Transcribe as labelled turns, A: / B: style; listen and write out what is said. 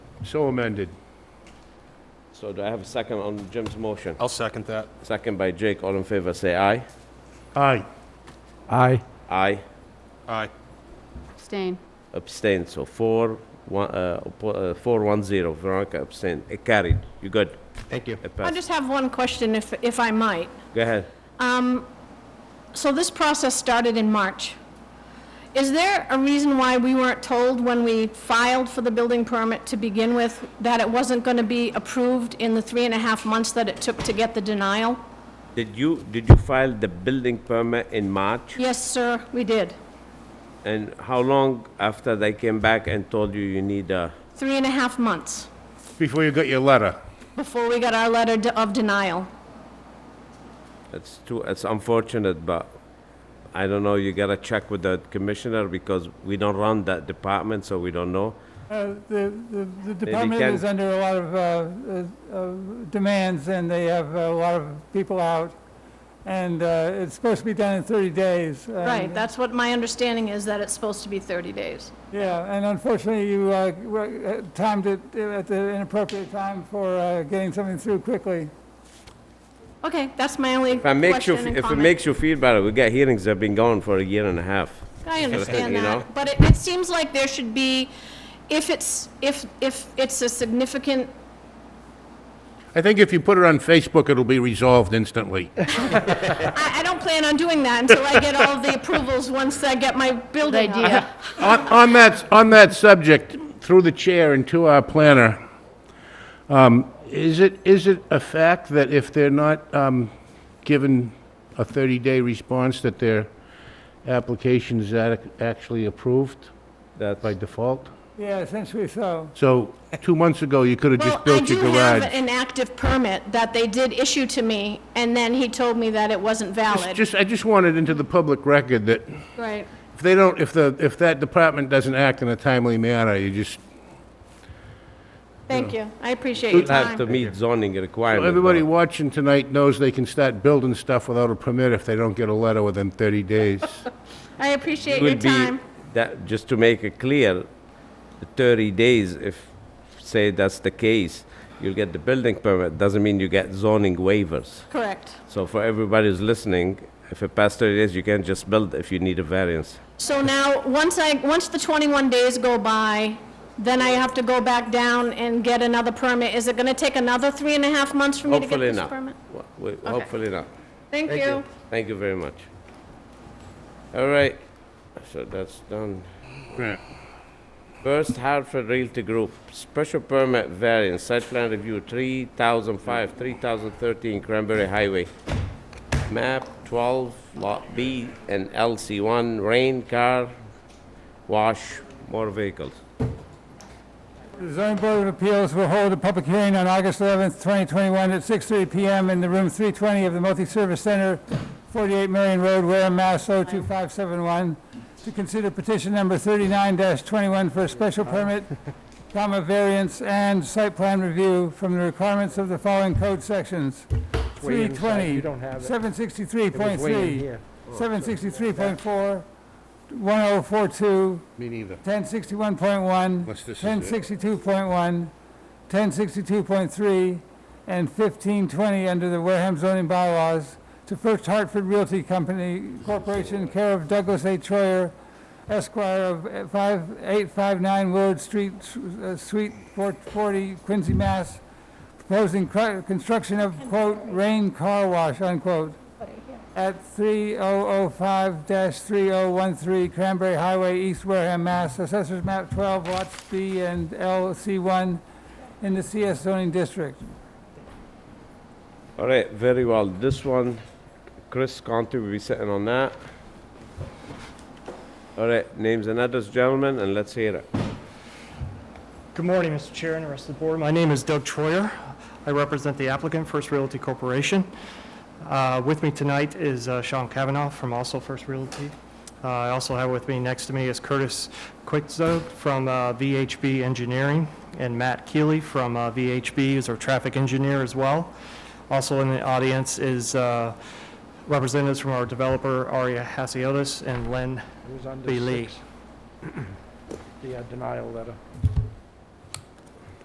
A: So amended.
B: So do I have a second on Jim's motion?
C: I'll second that.
B: Second by Jake, all in favor, say aye.
A: Aye.
D: Aye.
B: Aye,
C: Aye.
E: Abstain.
B: abstain, so four, one, uh, oppo- uh, four, one, zero, Veronica abstain, it carried, you good?
D: Thank you.
B: It
F: I
B: passed.
F: just have one question, if, if I might.
B: Go ahead.
F: So this process started in March. Is there a reason why we weren't told when we filed for the building permit to begin with that it wasn't going to be approved in the three and a half months that it took to get the denial?
B: Did you, did you file the building permit in March?
F: Yes, sir, we did.
B: And how long after they came back and told you you need uh, a,
F: Three and a half months
A: Before you got your letter.
F: before we got our letter de- of denial.
B: it's too, it's unfortunate, but I don't know, you gotta check with the commissioner because we don't run that department, so we don't know.
G: Uh, The the- the department
B: can-
G: is under a lot of uh, uh, uh, demands, and they have a lot of people out, and uh, it's supposed to be done in 30 days. and-
B: Um,
F: Right, that's what my understanding is, that it's supposed to be 30 days.
G: Yeah, and unfortunately, you uh, were- uh, timed it at the inappropriate time for uh, getting something through quickly.
F: Okay, that's my only
B: If it makes you,
F: question and
B: if it
F: comment.
B: makes you feel better, we got hearings that have been going for a year and a half.
F: I understand
B: You know?
F: that, but it, it seems like there should be, if it's, if, if it's a significant,
A: I think if you put it on Facebook, it'll be resolved instantly.
F: I, I don't plan on doing that until I get all the approvals once I get my building up.
E: idea.
A: On, on that, on that subject, through the chair and to our planner, um, is it, is it a fact that if they're not, um, given a 30-day response, that their application is adequ- actually approved
B: That's,
A: by default?
G: Yeah, essentially so.
A: So, two months ago, you could have
F: Well,
A: just
F: I
A: built
F: do
A: your
F: have
A: garage.
F: an active permit that they did issue to me, and then he told me that it wasn't valid.
A: Just, I just wanted into the public record that
F: Right.
A: if they don't, if the, if that department doesn't act in a timely manner, you just,
F: Thank you, I appreciate your
B: you'll have to
F: time.
B: meet zoning requirements.
A: everybody watching tonight knows they can start building stuff without a permit if they don't get a letter within 30 days.
F: I appreciate your
B: would be,
F: time.
B: that, just to make it clear, the thirty days, if, say that's the case, you'll get the building permit, doesn't mean you get zoning waivers.
F: Correct.
B: So for everybody who's listening, if it passed thirty days, you can't just build if you need a variance.
F: So now, once I, once the 21 days go by, then I have to go back down and get another permit. Is it going to take another three and a half months for me to get
B: Hopefully
F: this
B: not.
F: permit?
B: Wa- wa- Hopefully not.
F: Thank you.
B: Thank you very much. All right, so that's done. First Hartford Realty Group, special permit variance, site plan review, 3005, 3013 Cranberry Highway. Map 12, Lot B and LC1, rain, car, wash, more vehicles.
G: The zoning board of appeals will hold a public hearing on August 11th, 2021, at 6:30 PM in the room 320 of the Multi-Service Center, 48 Marion Road, Wareham, Mass. 02571, to consider petition number 39-21 for a special permit, comma, variance, and site plan review from the requirements of the following code sections.
D: way inside.
G: 320,
D: You don't have it.
G: 763.3,
D: Oh,
G: 763.4, 1042,
A: Me neither.
G: 1061.1,
A: Unless this is it.
G: 1062.1, 1062.3, and 1520 under the Wareham zoning bylaws to First Hartford Realty Company Corporation, care of Douglas A. Troyer, Esquire of uh, 5859 Willard Street, uh, Suite 440, Quincy, Mass., proposing cr- construction of, quote, "rain car wash," unquote, at 3005-3013 Cranberry Highway, East Wareham, Mass. Assessors map 12, lots B and LC1 in the CS zoning district.
B: All right, very well. This one, Chris Conti will be sitting on that. All right, names and address, gentlemen, and let's hear it.
D: Good morning, Mr. Chair and the rest of the board. My name is Doug Troyer. I represent the applicant, First Realty Corporation. Uh, With me tonight is uh, Sean Kavanaugh from also First Realty. Uh, I also have with me, next to me is Curtis Quickzo from uh, VHB Engineering, and Matt Keeley from uh, VHB is our traffic engineer as well. Also in the audience is uh, representatives from our developer, Aria Hasiotis and Len
H: It was under
D: B. Lee.
H: six, the uh, denial letter.